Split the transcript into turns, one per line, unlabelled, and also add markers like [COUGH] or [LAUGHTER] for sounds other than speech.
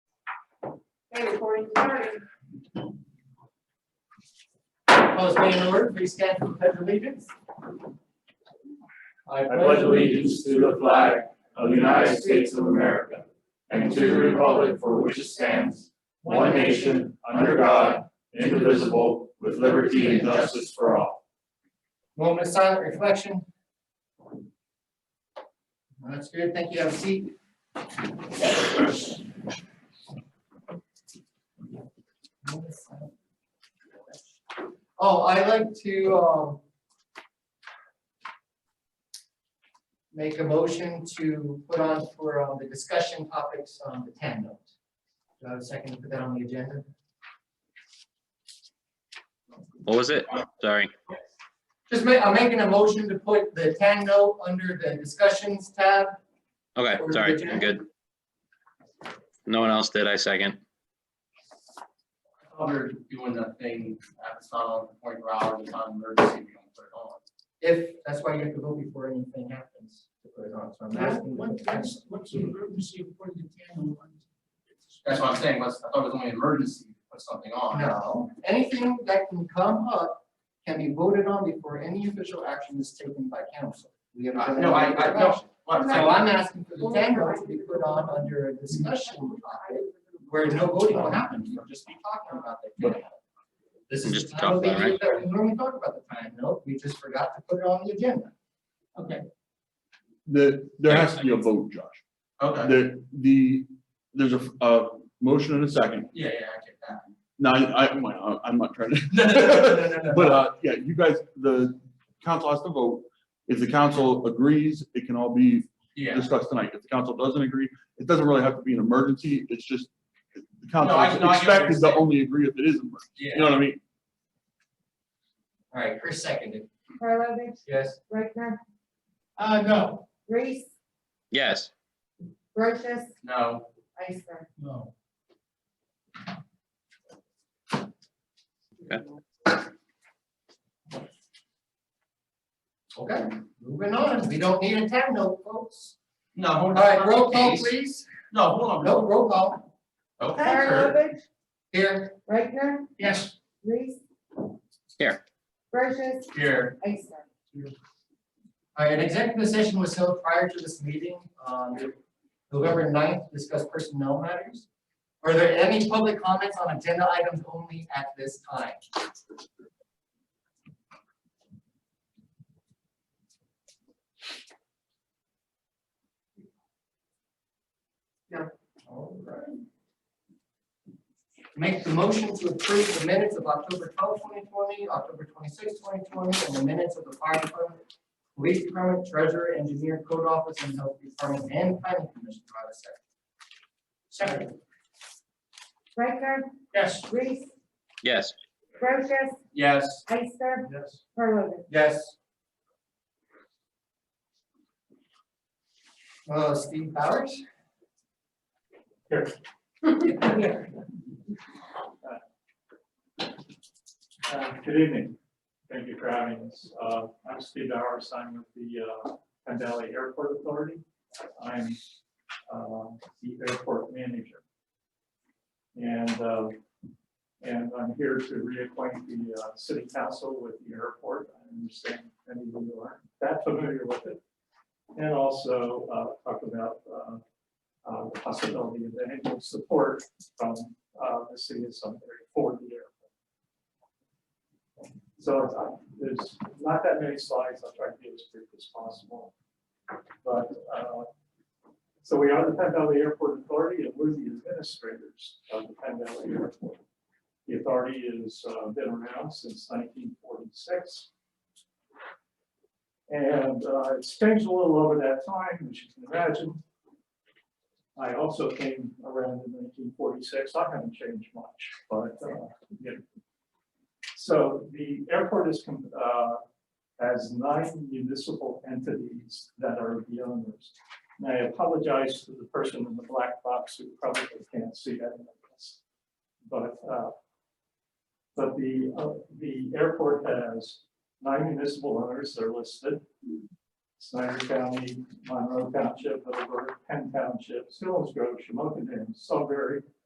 My recording started.
Opposed, being in order, please stand for the pledge of allegiance.
I pledge allegiance to the flag of the United States of America and to the republic for which it stands, one nation, under God, indivisible, with liberty and justice for all.
Moment of silent reflection. That's good, thank you, have a seat. Oh, I like to, um, make a motion to put on for um, the discussion topics on the ten note. Do I have a second to put that on the agenda?
What was it? Sorry.
Just ma, I'm making a motion to put the ten note under the discussions tab.
Okay,
Or
sorry,
Virginia?
I'm good. No one else did, I second.
While We're doing that thing, uh, it's not on point four hours, it's on emergency, we don't put it on.
If, that's why you have to vote before anything happens. to put it on. So I'm asking what the ten-
what's the emergency for the ten one?
That's what I'm saying, was, I thought it was only emergency, to put something on.
No, anything that can come up can be voted on before any official action is taken by council. We have.
Uh, no, I- I- no. What,
So
I-
I'm asking for the ten votes to be put on under a discussion topic where no voting will happen, you'll just be talking about that. This is.
Just
the time
talk about it,
we do that. We normally talk about the time, no, we just forgot to put it on the
[LAUGHS]
agenda. [LAUGHS] Okay,
The, there has to be a vote, Josh.
Okay,
The, the, there's a, a motion and a second.
yeah, yeah, I get that.
Now, I, I, I'm not trying to.
No, no, no, no, no, no, no.
But, uh, yeah, you guys, the council has to vote. If the council agrees, it can all be
Yeah,
discussed tonight. If the council doesn't agree, it doesn't really have to be an emergency. It's just the
No,
council
I-
is
no, I get what you're
expected to
saying.
only agree if it is emergency. You
yeah,
know what I mean?
all right, Chris seconded,
Karlovic,
yes?
Reichtner,
Uh, no.
Reese,
Yes,
Brochus,
no,
Ister.
No.
Okay.
Okay, moving on, we don't need a ten note, folks.
no. hold
All
on.
right, roll call, please.
No, hold on,
No,
no,
roll call,
okay, Kurt.
Karlovic,
here.
Reichtner,
Yes.
Reese.
Here.
Brochus,
here,
Ister.
All right, an executive session was held prior to this meeting, um, November 9th, to discuss personnel matters. Are there any public comments on agenda items only at this time? No. All right. Make the motion to approve the minutes of October 12th, 2020, October 26th, 2020, and the minutes of the fire department Police Department, Treasurer, Engineer, Code Office, and Health Department, and Planning Commission, do I have a second? Second.
Reichtner,
Yes.
Reese,
yes.
Brochus,
yes,
Ister,
Yes.
Karlovic.
Yes. Uh, Steve Powers? [LAUGHS]
Here.
Uh, Good evening. Thank you for having us. Uh, I'm Steve Bowers. I'm with the uh, Penn Valley Airport Authority. I'm uh, the airport manager. And, uh, and I'm here to reacquaint the uh, city council with the airport. I understand many of you aren't that familiar with it. And also uh, talk about uh, uh, the possibility of annual support from uh, the city of Sunbury for the airport. So it's, uh, there's not that many slides, I'll try to be as brief as possible. But, uh, so we are the Penn Valley Airport Authority and we're the administrators of the Penn Valley Airport. The authority has uh, been around since nineteen forty-six. And uh, it's changed a little over that time, as you can imagine. I also came around in nineteen forty-six, I haven't changed much, but, uh, you know, so the airport is, com- uh, has nine municipal entities that are the owners. And I apologize to the person in the black box who probably can't see that in this. But, uh, but the, uh, the airport has nine municipal owners, they're listed. Snyder County, Monroe Township, Middleburg, Penn Township, Stillings Grove, Shamokin Dam, Sudbury,